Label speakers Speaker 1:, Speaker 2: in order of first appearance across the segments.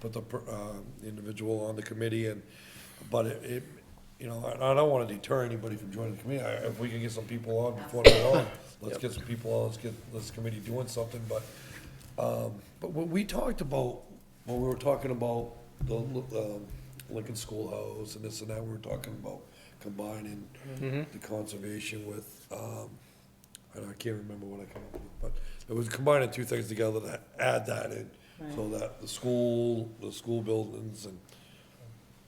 Speaker 1: put the per- uh, individual on the committee and, but it, it, you know, and I don't want to deter anybody from joining the committee. I- If we can get some people on before they're on, let's get some people on, let's get this committee doing something, but, um, but when we talked about, when we were talking about the um, Lincoln Schoolhouse and this and that, we were talking about combining the conservation with, um, and I can't remember what I came up with, but it was combining two things together to add that in, so that the school, the school buildings and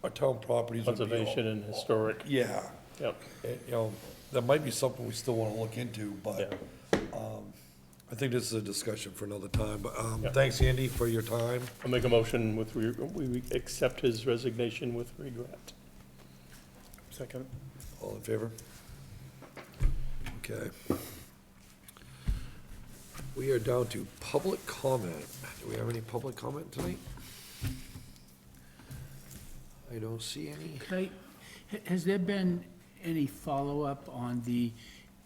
Speaker 1: our town properties would be all-
Speaker 2: Conservation and historic,
Speaker 1: Yeah,
Speaker 2: yep,
Speaker 1: it- you know, that might be something we still wanna look into,
Speaker 2: yeah.
Speaker 1: but um, I think this is a discussion for another time, but, um,
Speaker 2: Yeah.
Speaker 1: thanks, Andy, for your time.
Speaker 2: I'll make a motion with, re- we accept his resignation with regret.
Speaker 3: Second.
Speaker 1: All in favor? Okay. We are down to public comment. Do we have any public comment tonight? I don't see any.
Speaker 4: Clay, ha- has there been any follow-up on the,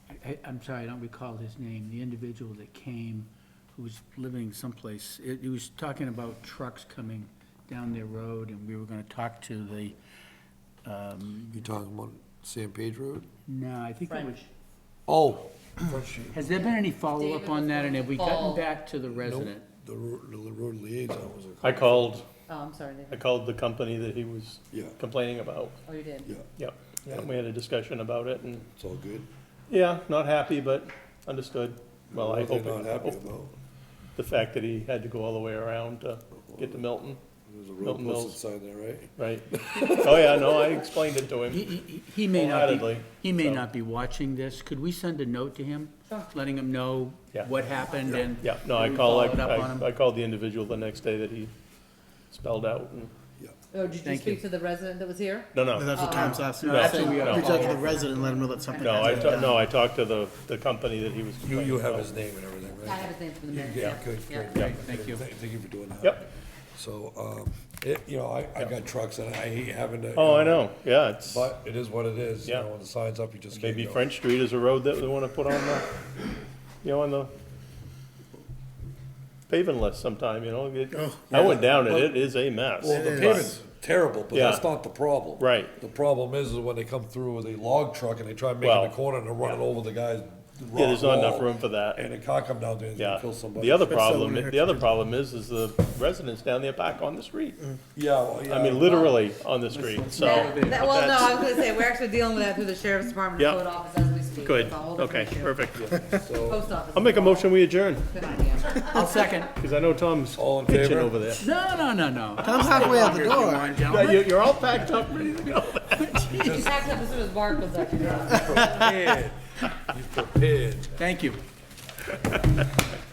Speaker 4: I- I- I'm sorry, I don't recall his name, the individual that came, who was living someplace, it- he was talking about trucks coming down their road, and we were gonna talk to the, um,
Speaker 1: You talking about San Pedro?
Speaker 4: no, I think it was,
Speaker 1: Oh.
Speaker 4: has there been any follow-up on that, and have we gotten
Speaker 5: David
Speaker 4: back to the
Speaker 1: Nope,
Speaker 4: resident?
Speaker 1: the ro- the road liaison was a.
Speaker 2: I called,
Speaker 5: Oh, I'm sorry,
Speaker 2: I
Speaker 5: David.
Speaker 2: called the company that he was
Speaker 1: Yeah.
Speaker 2: complaining about,
Speaker 5: Oh, you did.
Speaker 1: Yeah,
Speaker 2: yep. And we had a discussion about it, and,
Speaker 1: it's all good.
Speaker 2: yeah, not happy, but understood. Well, I
Speaker 1: What they're
Speaker 2: hope,
Speaker 1: Not happy
Speaker 2: it-
Speaker 1: about,
Speaker 2: the fact that he had to go all the way around to get to Milton,
Speaker 1: there's a road
Speaker 2: Milton
Speaker 1: posted
Speaker 2: Mills.
Speaker 1: sign there, right?
Speaker 2: right? Oh, yeah, no, I explained it to
Speaker 4: He-
Speaker 2: him.
Speaker 4: He he- he may not be,
Speaker 2: Wholeheartedly,
Speaker 4: he may
Speaker 2: so.
Speaker 4: not be watching this, could we send a note to him, letting him know
Speaker 2: Yeah.
Speaker 4: what happened and?
Speaker 2: Yeah, no, I
Speaker 4: we
Speaker 2: called,
Speaker 4: followed up on him?
Speaker 2: I, I called the individual the next day that he spelled out, and,
Speaker 1: Yeah.
Speaker 5: Oh, did you
Speaker 4: Thank
Speaker 5: speak
Speaker 4: you.
Speaker 5: to the resident that was here?
Speaker 2: no, no.
Speaker 3: And that's what Tom's asking.
Speaker 4: No, that's what we
Speaker 2: gotta
Speaker 3: Reach out to
Speaker 4: follow
Speaker 3: the
Speaker 4: up.
Speaker 3: resident and let them know that something.
Speaker 2: No, I, ta- no, I talked to the, the company that he was.
Speaker 1: You, you have
Speaker 2: complaining
Speaker 1: his name and everything,
Speaker 5: I
Speaker 1: right?
Speaker 5: have his name from the minutes,
Speaker 1: Yeah,
Speaker 5: yeah.
Speaker 1: good,
Speaker 5: yeah.
Speaker 1: good.
Speaker 4: Great, thank you.
Speaker 1: Thank thank you for doing that.
Speaker 2: about. Yep,
Speaker 1: So, um, it, you know, I, I got trucks and I hate having to.
Speaker 2: oh, I know, yeah, it's,
Speaker 1: But it is what it is, you
Speaker 2: Yeah.
Speaker 1: know, when the sign's up, you just can't
Speaker 2: maybe
Speaker 1: go.
Speaker 2: French Street is a road that they wanna put on the, you know, on the paving list sometime, you know, it-
Speaker 3: Oh,
Speaker 2: I went down it, it is a mess.
Speaker 1: Well, the
Speaker 3: It
Speaker 1: pavement's terrible, but that's
Speaker 2: Yeah.
Speaker 1: not the problem.
Speaker 2: Right.
Speaker 1: The problem is, is when they come through with a log truck and they try and make
Speaker 2: Well,
Speaker 1: it a corner and they're running over the guy's
Speaker 2: Yeah, there's
Speaker 1: rock
Speaker 2: not enough
Speaker 1: wall,
Speaker 2: room for that,
Speaker 1: And a car come down there and
Speaker 2: yeah.
Speaker 1: kill somebody.
Speaker 2: The other
Speaker 3: But someone
Speaker 2: problem,
Speaker 3: here
Speaker 2: the other problem is, is the residents down there back on the street,
Speaker 1: Yeah, Mm-hmm. well, yeah.
Speaker 2: I mean, literally on the street, so.
Speaker 5: That- that- Well, no,
Speaker 2: Oh, that's-
Speaker 5: I was gonna say, we're actually dealing with that through the sheriff's department and
Speaker 2: Yeah.
Speaker 5: code office as we speak.
Speaker 2: Good,
Speaker 5: It's a whole different
Speaker 2: okay,
Speaker 5: issue.
Speaker 2: perfect.
Speaker 1: So,
Speaker 5: Post office.
Speaker 2: I'll make a motion, we adjourn,
Speaker 5: Good idea.
Speaker 4: I'll second.
Speaker 2: because I know Tom's
Speaker 1: All in
Speaker 2: pitching
Speaker 1: favor?
Speaker 2: over there.
Speaker 4: No, no, no, no.
Speaker 3: Tom's halfway out the door.
Speaker 2: Yeah, you- You're all packed up, ready to go.
Speaker 5: He packed up as soon as Mark was up here.
Speaker 1: prepared. he's prepared.
Speaker 4: Thank you.